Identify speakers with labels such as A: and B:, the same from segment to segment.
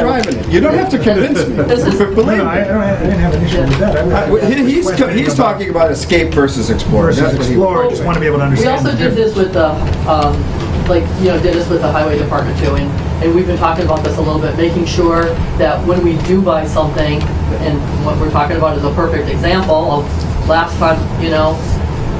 A: driving it. You don't have to convince me.
B: This is-
A: Believe
C: No, no, I, I
A: me.
C: don't have- I didn't have an issue with that. I would-
A: I- well, he- He's,
C: Just
A: co-
C: wanted to
A: he's
C: go back
A: talking about escape versus explorer.
C: Versus
A: That's what he-
C: explorer, I just want to be able to
B: We
C: understand.
B: also
C: the
B: did this
C: difference.
B: with the, um, like, you know, did this with the highway department too, and, and we've been talking about this a little bit, making sure that when we do buy something, and what we're talking about is a perfect example of last time, you know,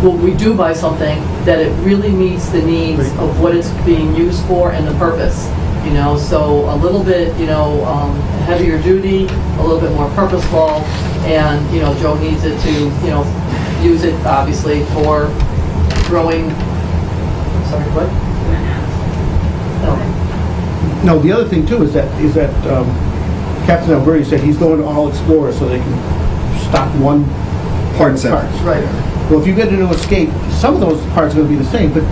B: when we do buy something, that it really meets the needs of what it's being used for and the purpose, you know, so a little bit, you know, um, heavier duty, a little bit more purposeful, and, you know, Joe needs it to, you know, use it obviously for growing, sorry, what? No,
D: No, the other thing too is that, is that um, Captain Alberti said he's going to all explorers so they can stock one
A: Hard
D: part
A: set.
D: parts.
B: right.
D: Well, if you get into escape, some of those parts are gonna be the same, but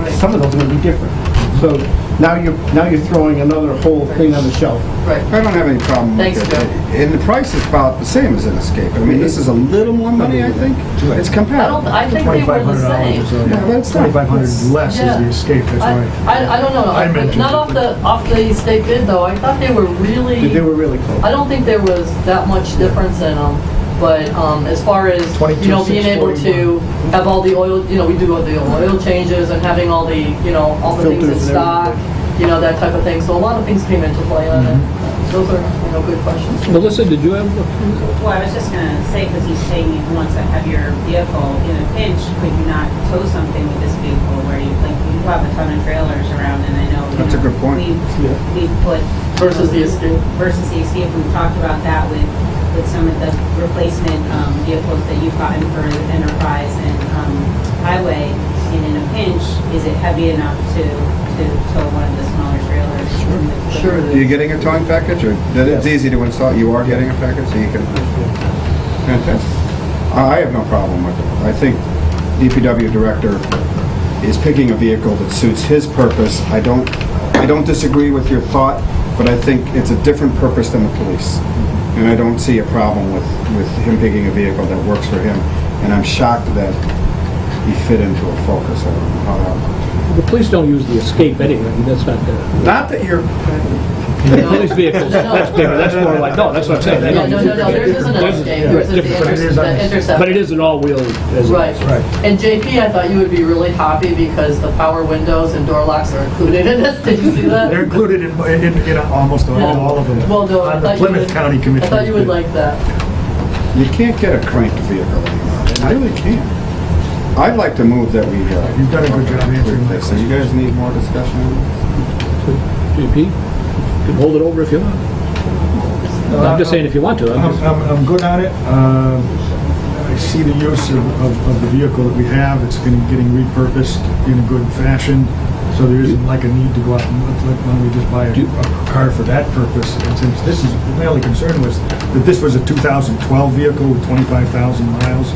B: Right.
D: some of those are gonna be different. So now you're, now you're throwing another whole thing on the shelf.
B: Right.
A: I don't have any problem with
B: Thanks,
A: it.
B: Joe.
A: And the price is about the same as an escape. I mean, this is a little more money, I think. It's
B: I don't,
A: comparable.
B: I think they were the
C: $2,500
B: same.
C: is, uh,
A: Yeah, but it's not-
C: 2,500 less is
B: Yeah.
C: the escape, that's
B: I,
C: why.
B: I I don't know,
C: I
B: I-
C: mentioned
B: not
C: it.
B: off the, off the state bid though, I thought they were really,
D: They were really close.
B: I don't think there was that much difference in them, but, um, as far as, you know, being able to
C: 22,641.
B: have all the oil, you know, we do all the oil changes and having all the, you know, all the things in
D: Filters and
B: stock, you know, that type of thing, so a lot of things came into play on
D: Mm-hmm.
B: it. Those are, you know, good questions.
E: Melissa, did you have,
F: Well, I was just gonna say, because he's saying if you want to have your vehicle in a pinch, could you not tow something with this vehicle where you, like, you have a ton of trailers around, and I know. you
A: That's a
F: know,
A: good point.
F: we've- We've put.
B: Versus the Escape.
F: Versus the Escape, we've talked about that with, with some of the replacement um, vehicles that you've gotten for Enterprise and um, Highway, and in a pinch, is it heavy enough to, to tow one of the smaller trailers?
B: Sure.
A: Are you getting a towing package, or that it's easy to install? You are getting a package, so you can. Fantastic. I I have no problem with it. I think DPW director is picking a vehicle that suits his purpose. I don't, I don't disagree with your thought, but I think it's a different purpose than the police. And I don't see a problem with, with him picking a vehicle that works for him. And I'm shocked that he fit into a Focus. I don't know how that.
E: the police don't use the escape anyway, that's not the,
A: Not that you're,
E: the police vehicles, that's bigger, that's more like, no, that's what I'm saying. they
B: Yeah,
E: don't
B: no,
E: use
B: no,
E: it.
B: no, theirs isn't an
E: Theirs is-
B: escape,
E: yeah,
B: theirs is the
E: different.
C: it
B: inter-
C: is on
B: the
C: the-
B: intercept.
E: But it is an all-wheel. as-
B: Right.
C: Right.
B: And JP, I thought you would be really happy because the power windows and door locks are included in this, did you see that?
C: They're included in, in, in almost all,
B: Yeah.
C: all of them.
B: Well, no, I thought
C: On the
B: you would.
C: Plymouth County
B: I
C: Commission.
B: thought you would like that.
A: You can't get a cranked vehicle anymore. I really can't. I'd like to move that we. uh,
C: You've done a good job answering my
A: So you guys need more discussion? on
E: JP, you can hold it over if you want. I'm just saying if you want to, I'm
C: I'm,
E: just,
C: I'm, I'm good on it. Um, I see the use of, of, of the vehicle that we have, it's getting, getting repurposed in a good fashion, so there isn't like a need to go out and, look, like, why don't we just buy a,
E: Do-
C: a car for that purpose? And since this is, my only concern was that this was a 2012 vehicle with 25,000 miles,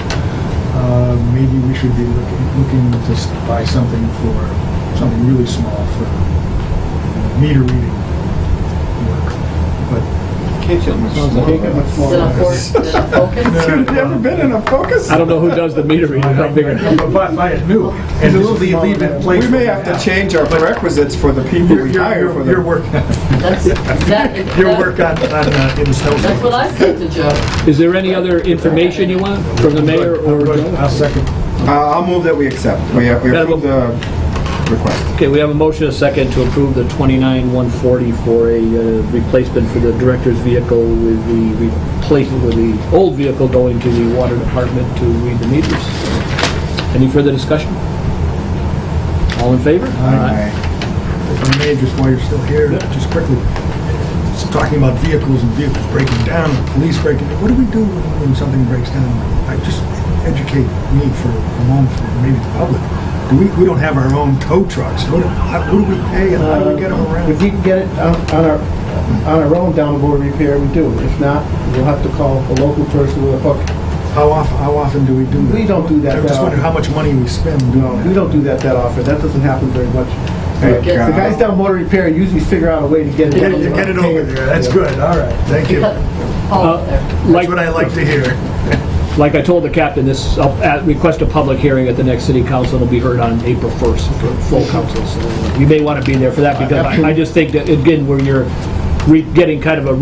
C: uh, maybe we should be looking, looking to s- buy something for, something really small for meter reading work. But
A: it? Can't you?
D: Sounds like it got much
B: Is
D: smaller.
B: it a focus? Is it a focus?
A: Dude, you ever been in a Focus?
E: I don't know who does the meter reading, how big it is.
C: But buy, buy it new and just leave, leave it in place.
A: We may have to change our prerequisites for the people
C: Your,
A: we
C: your,
A: hire for
C: your, your
A: the.
C: work,
B: That's, that,
C: your
B: that-
C: work on, on, uh, in the snowstorm.
B: that's what I said to Joe.
E: Is there any other information you want from the mayor or?
C: I'll second.
A: Uh, I'll move that we accept. We uh, we
E: Madam-
A: approve the request.
E: Okay, we have a motion, a second, to approve the 29,140 for a uh, replacement for the director's vehicle with the replacement with the old vehicle going to the water department to read the meters. Any further discussion? All in favor?
C: Aye. If I may, just while you're still here, just quickly, it's talking about vehicles and vehicles breaking down, police breaking, what do we do when something breaks down? I just educate me for a moment, or maybe the public. Do we, we don't have our own tow trucks. What, do- how, who do we pay and how do we get them around?
D: If you can get it on on our, on our own down the board repair, we do. If not, we'll have to call a local person with a hook.
C: How often, how often do we do that?
D: We don't do that
C: I
D: that
C: just wonder
D: often.
C: how much money we spend doing
D: No, Uh, we
C: that.
D: don't do that that often. That doesn't happen very much.
A: Thank
D: The
A: God.
D: guys down motor repair usually figure out a way to get it.
C: Get it, get it over there, that's good, all right, thank you.
B: Cut
C: That's
B: Paul
E: Uh,
B: out there.
E: Like,
C: what I like to hear.
E: like I told the captain, this, I'll at- request a public hearing at the next city council, it'll be heard on April 1st for full uh,
C: Uh,
E: council, so you may want to be there for that, because I I just think that, again, where you're re- getting kind of a